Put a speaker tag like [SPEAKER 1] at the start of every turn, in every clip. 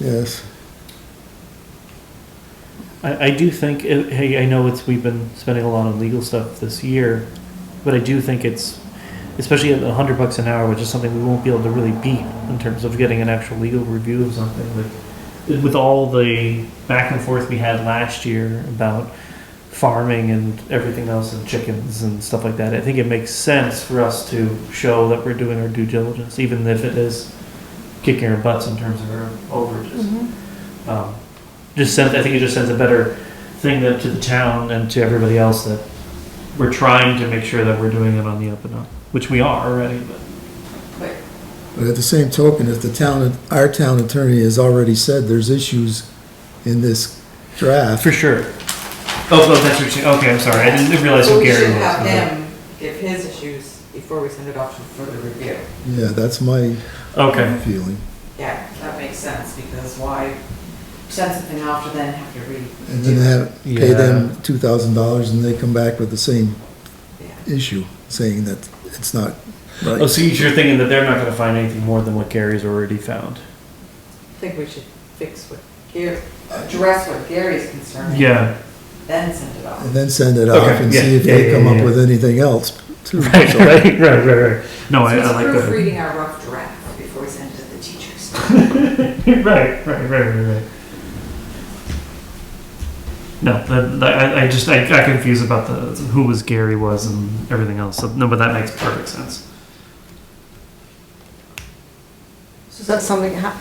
[SPEAKER 1] yes.
[SPEAKER 2] I, I do think, it- hey, I know it's, we've been spending a lot on legal stuff this year, but I do think it's, especially at a hundred bucks an hour, which is something we won't be able to really beat in terms of getting an actual legal review of something, like, with all the back and forth we had last year about farming and everything else and chickens and stuff like that, I think it makes sense for us to show that we're doing our due diligence, even if it is kicking our butts in terms of our overages um, just sends, I think it just sends a better thing that to the town and to everybody else that we're trying to make sure that we're doing it on the up and up, which we are already, but.
[SPEAKER 1] But at the same token, if the town, our town attorney has already said there's issues in this draft,
[SPEAKER 2] For sure. Oh, oh, that's what you're saying, okay, I'm sorry, I didn't realize
[SPEAKER 3] So
[SPEAKER 2] what Gary was.
[SPEAKER 3] We should have
[SPEAKER 2] Okay.
[SPEAKER 3] him give his issues before we send it off for the review.
[SPEAKER 1] yeah, that's my
[SPEAKER 2] Okay,
[SPEAKER 1] feeling.
[SPEAKER 3] Yeah, that makes sense, because why send something off to then have to read?
[SPEAKER 1] And then have, pay
[SPEAKER 2] Yeah.
[SPEAKER 1] them two thousand dollars and they come back with the same issue, saying that it's not right.
[SPEAKER 2] oh, so you're thinking that they're not gonna find anything more than what Gary's already found?
[SPEAKER 3] I think we should fix what Gary, address what Gary's concerned.
[SPEAKER 2] Yeah.
[SPEAKER 3] Then send it off.
[SPEAKER 1] And then send it off
[SPEAKER 2] Okay,
[SPEAKER 1] and
[SPEAKER 2] yeah,
[SPEAKER 1] see if
[SPEAKER 2] yeah,
[SPEAKER 1] they
[SPEAKER 2] yeah,
[SPEAKER 1] come
[SPEAKER 2] yeah.
[SPEAKER 1] up with anything else. too.
[SPEAKER 2] Right,
[SPEAKER 1] So-
[SPEAKER 2] right, right, right, right, no, I, I like that.
[SPEAKER 3] So it's proofreading our rough draft before we send it to the teachers.
[SPEAKER 2] Right, right, right, right, right. No, that, that- I, I just, I got confused about the, who was Gary was and everything else, so, no, but that makes perfect sense.
[SPEAKER 4] So is that something ha-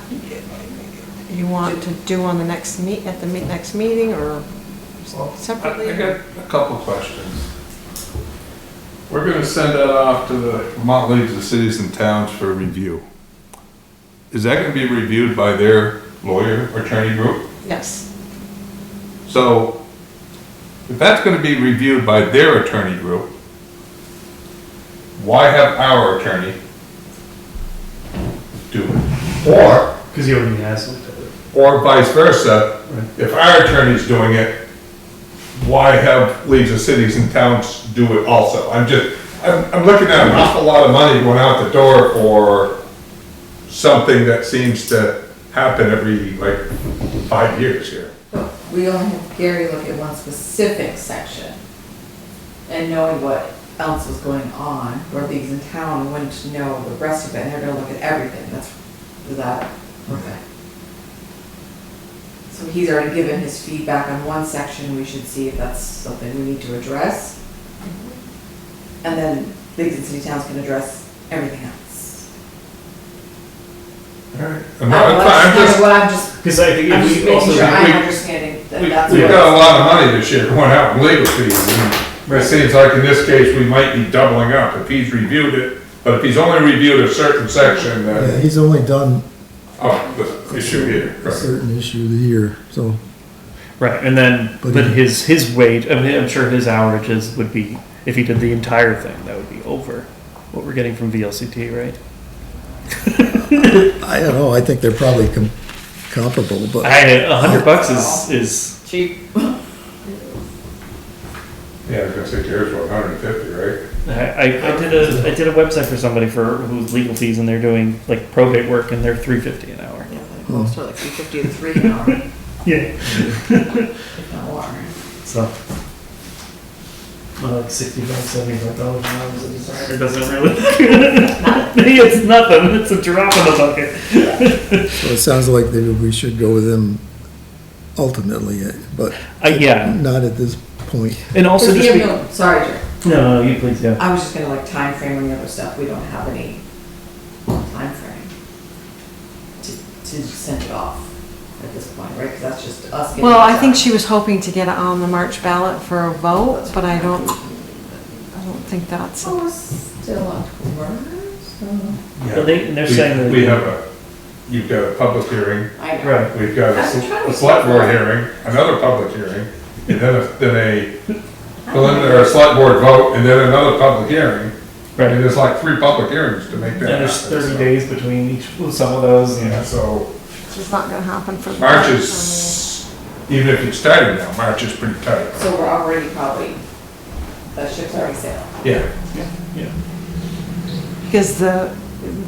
[SPEAKER 4] you want to do on the next meet, at the meet, next meeting, or
[SPEAKER 5] I
[SPEAKER 4] separately?
[SPEAKER 5] I got a couple questions. We're gonna send that off to the Vermont Leagues of Cities and Towns for review. Is that gonna be reviewed by their lawyer or attorney group?
[SPEAKER 4] Yes,
[SPEAKER 5] So if that's gonna be reviewed by their attorney group, why have our attorney do it? Or,
[SPEAKER 2] Because he already has looked at it.
[SPEAKER 5] or vice versa,
[SPEAKER 2] Right.
[SPEAKER 5] if our attorney's doing it, why have leagues of cities and towns do it also? I'm just, I'm, I'm looking at an awful lot of money going out the door for something that seems to happen every, like, five years here.
[SPEAKER 3] But we only have Gary look at one specific section. And knowing what else was going on, where these in town wouldn't know the rest of it, and they're gonna look at everything, that's, is that, okay. So he's already given his feedback on one section, we should see if that's something we need to address. And then leagues and city towns can address everything else.
[SPEAKER 5] Alright.
[SPEAKER 3] I
[SPEAKER 5] I'm
[SPEAKER 3] don't
[SPEAKER 5] not-
[SPEAKER 3] know,
[SPEAKER 5] I'm
[SPEAKER 3] That's
[SPEAKER 5] fine, I'm
[SPEAKER 3] kind of
[SPEAKER 5] just,
[SPEAKER 3] what I'm just,
[SPEAKER 2] Because I think
[SPEAKER 3] I'm
[SPEAKER 2] if
[SPEAKER 3] just
[SPEAKER 2] we
[SPEAKER 3] making
[SPEAKER 2] also,
[SPEAKER 3] sure I'm
[SPEAKER 5] we-
[SPEAKER 3] understanding that
[SPEAKER 2] we-
[SPEAKER 3] that's
[SPEAKER 5] we've
[SPEAKER 3] what.
[SPEAKER 5] got a lot of money this year going out in legal fees, and it
[SPEAKER 2] Right.
[SPEAKER 5] seems like in this case, we might be doubling up if he's reviewed it, but if he's only reviewed a certain section,
[SPEAKER 1] Yeah,
[SPEAKER 5] then,
[SPEAKER 1] he's only done
[SPEAKER 5] oh, the issue here,
[SPEAKER 1] a
[SPEAKER 5] right.
[SPEAKER 1] certain issue here, so.
[SPEAKER 2] right, and then,
[SPEAKER 1] But
[SPEAKER 2] but
[SPEAKER 1] he-
[SPEAKER 2] his, his wage, I mean, I'm sure his hourages would be, if he did the entire thing, that would be over what we're getting from VLCT, right?
[SPEAKER 1] I don't know, I think they're probably com- comparable, but
[SPEAKER 2] I, a hundred bucks is, is,
[SPEAKER 3] Cheap.
[SPEAKER 5] Yeah, I was gonna say Jared's what, hundred and fifty, right?
[SPEAKER 2] I, I I did a, I did a website for somebody for, who's legal fees and they're doing like probate work and they're three fifty an hour.
[SPEAKER 3] Yeah, like most are like three fifty to three an hour,
[SPEAKER 2] Yeah.
[SPEAKER 3] if not more.
[SPEAKER 2] So. Well, like sixty bucks, seventy-five dollars an hour is a designer, doesn't really. It's nothing, it's a drop in the bucket.
[SPEAKER 1] so it sounds like maybe we should go with them ultimately, eh, but
[SPEAKER 2] Uh, yeah,
[SPEAKER 1] not at this point.
[SPEAKER 2] and also
[SPEAKER 3] Because we
[SPEAKER 2] just be,
[SPEAKER 3] have no- Sorry, Jer,
[SPEAKER 2] no, no, you please, yeah.
[SPEAKER 3] I was just gonna like time frame and the other stuff, we don't have any time frame to, to send it off at this point, right? Because that's just us getting.
[SPEAKER 4] well,
[SPEAKER 3] it
[SPEAKER 4] I
[SPEAKER 3] done.
[SPEAKER 4] think she was hoping to get it on the March ballot for a vote, but I don't, I don't think that's,
[SPEAKER 3] So we're still October, so.
[SPEAKER 2] Well, they- and they're
[SPEAKER 5] We-
[SPEAKER 2] saying that-
[SPEAKER 5] We have a, you've got a public hearing,
[SPEAKER 3] I know.
[SPEAKER 2] Right.
[SPEAKER 5] we've got a
[SPEAKER 3] I'm
[SPEAKER 5] s-
[SPEAKER 3] trying
[SPEAKER 5] a
[SPEAKER 3] to-
[SPEAKER 5] select board hearing, another public hearing, and then a, then a preliminary, or a select board vote, and then another public hearing.
[SPEAKER 2] Right.
[SPEAKER 5] And there's like three public hearings to make
[SPEAKER 2] And
[SPEAKER 5] that happen.
[SPEAKER 2] there's thirty
[SPEAKER 5] so-
[SPEAKER 2] days between each, some of those,
[SPEAKER 5] Yeah,
[SPEAKER 2] yeah.
[SPEAKER 5] so
[SPEAKER 4] it's not gonna happen for. the
[SPEAKER 5] March
[SPEAKER 4] for
[SPEAKER 5] is, even if it's tighter now, March is pretty tight.
[SPEAKER 3] So we're already probably, the ship's already sailed.
[SPEAKER 5] Yeah.
[SPEAKER 4] the- Because the,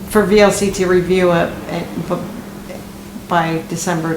[SPEAKER 4] for VLC to review it, and- but eh, by December